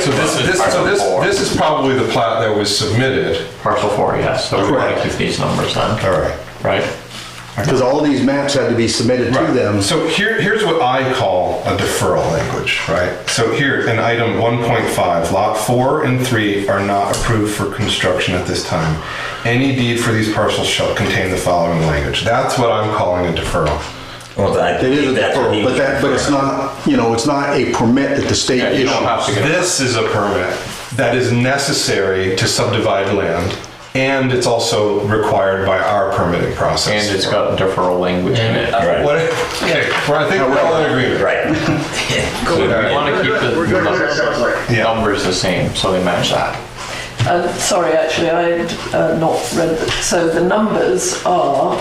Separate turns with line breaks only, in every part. So this is, this- so this, this is probably the plat that was submitted.
Parcel four, yes, so we want to
Correct.
keep these numbers then.
All right.
Right?
Because all these maps had to be submitted to them.
So here, here's what I call a deferral language, right? So here, in item 1.5, lot 4 and 3 are not approved for construction at this time. Any deed for these parcels shall contain the following language. That's what I'm calling a deferral.
Well, I
It is a
think that's what
deferral,
he
but
was
that, but it's
referring.
not, you know, it's not a permit that the state
Yeah, you don't have to
issues.
get- This is a permit that is necessary to subdivide land, and it's also required by our permitting process.
And it's got deferral language in it.
Right.
What, okay, well, I think we're all in agreement.
Right.
So we want to keep
We're
the
good.
numbers- numbers the same, so they match that.
Uh, sorry, actually, I had uh, not read that. So the numbers are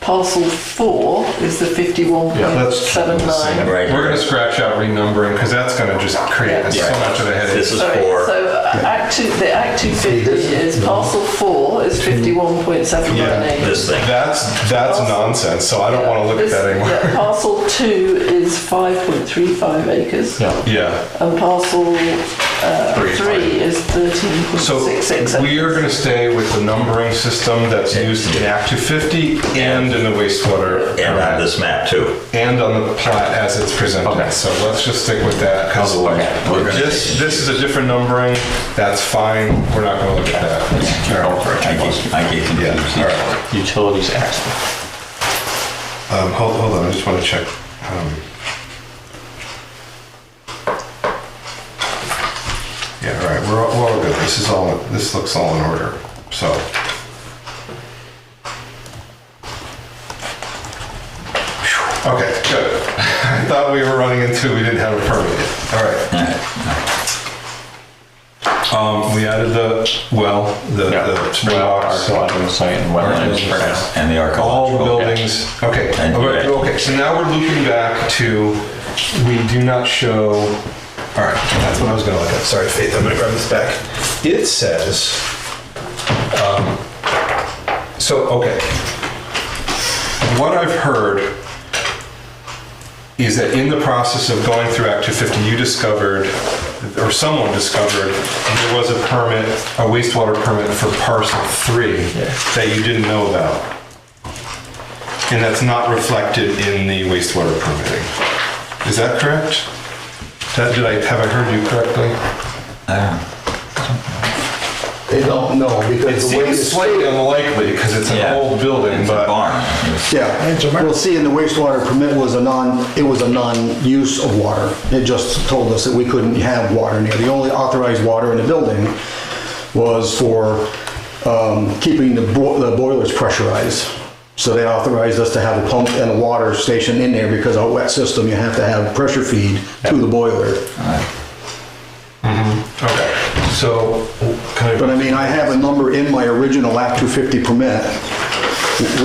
parcel four is the
Let's-
51.79.
Right.
We're gonna scratch out renumbering, because that's gonna just create so
Yeah.
much of a headache.
This is
Sorry,
four.
so uh, Act 2, the Act 250 is parcel 4 is
Yeah.
51.718.
This thing.
That's, that's nonsense, so I don't wanna look at
This-
that anymore.
yeah, Parcel 2 is 5.35 acres.
Yeah.
Yeah,
And parcel uh, 3
Three.
is
so
13.66.
we are gonna stay with the numbering system that's used in Act 250 and in the wastewater.
And on this map too.
and on the plat as it's presented.
Okay.
So let's just stick with that, because
we're gonna-
this, this is a different numbering, that's fine, we're not gonna look at that. All right.
I get, I get confused.
Yeah, all right.
Utilities act.
Um, hold, hold on, I just wanna check. um, Yeah, all right, we're, all- we're all good, this is all, this looks all in order, so. Okay, good. I thought we were running into, we didn't have a permit yet, all right. Um, we added the well, the,
Yeah.
the springbok, so
Archaeological site and wetlands for now.
And the
all
archaeological.
buildings, okay,
And-
okay, okay, so now we're looping back to, we do not show, all right, that's what I was gonna look at, sorry, Faith, I'm gonna grab this back. It says, um, so, okay. What I've heard is that in the process of going through Act 250, you discovered, or someone discovered, there was a permit, a wastewater permit for parcel three that you didn't know about. And that's not reflected in the wastewater permitting. Is that correct? That- Did I, have I heard you correctly?
They don't know
It
because the way
seems
it's.
slightly unlikely because it's an
Yeah.
old building,
It's a
but.
barn.
Yeah, well, see, in the wastewater permit was a non, it was a non-use of water. It just told us that we couldn't have water near. The only authorized water in the building was for um, keeping the bo- the boilers pressurized. So they authorized us to have a pump and a water station in there because our wet system, you have to have pressure feed to the boiler.
Okay, so, can
But
I,
I mean, I have a number in my original Act 250 permit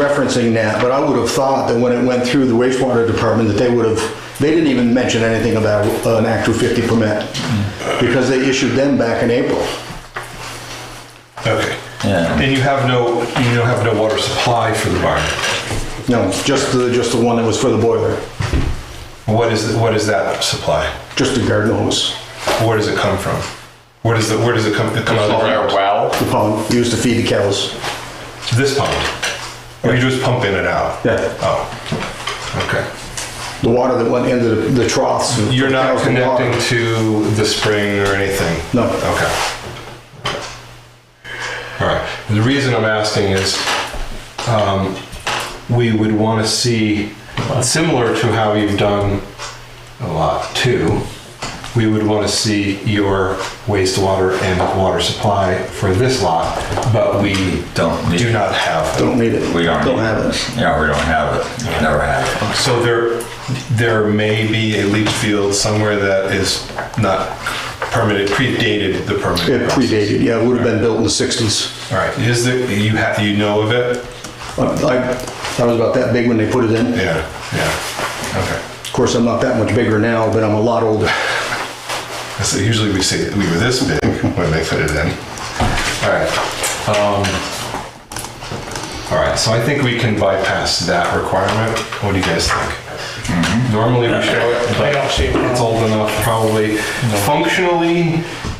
referencing that, but I would have thought that when it went through the wastewater department, that they would have, they didn't even mention anything about uh, an Act 250 permit, because they issued them back in April.
okay.
Yeah.
And you have no, you don't have no water supply for the barn?
No, just the, just the one that was for the boiler,
What is, what is that supply?
just the garden hose,
Where does it come from? Where does the, where does it come, it come out of the
Or
ground?
well.
the pump used to feed the cows.
This pump? Or you just pump in and out?
Yeah,
Oh, okay.
the water that went into the- the troughs. and
You're not
cows and water.
connecting to the spring or anything?
No.
Okay. All right. The reason I'm asking is um, we would want to see, similar to how you've done a lot too, we would want to see your wastewater and water supply for this lot, but we
Don't need-
do not have them.
Don't need it.
We don't.
Don't have it.
Yeah, we don't have it. Never have it.
So there, there may be a leach field somewhere that is not permitted, predated the permit.
It
process.
predated, yeah, it would have been built in the 60s.
All right, is there, you have, you know of it?
I, I was about that big when they put it in.
Yeah, yeah, okay.
Of course, I'm not that much bigger now, but I'm a lot older.
So usually we say we were this big when they put it in. All right. um, All right, so I think we can bypass that requirement. What do you guys think? Normally we show it, but it's old enough probably. Functionally,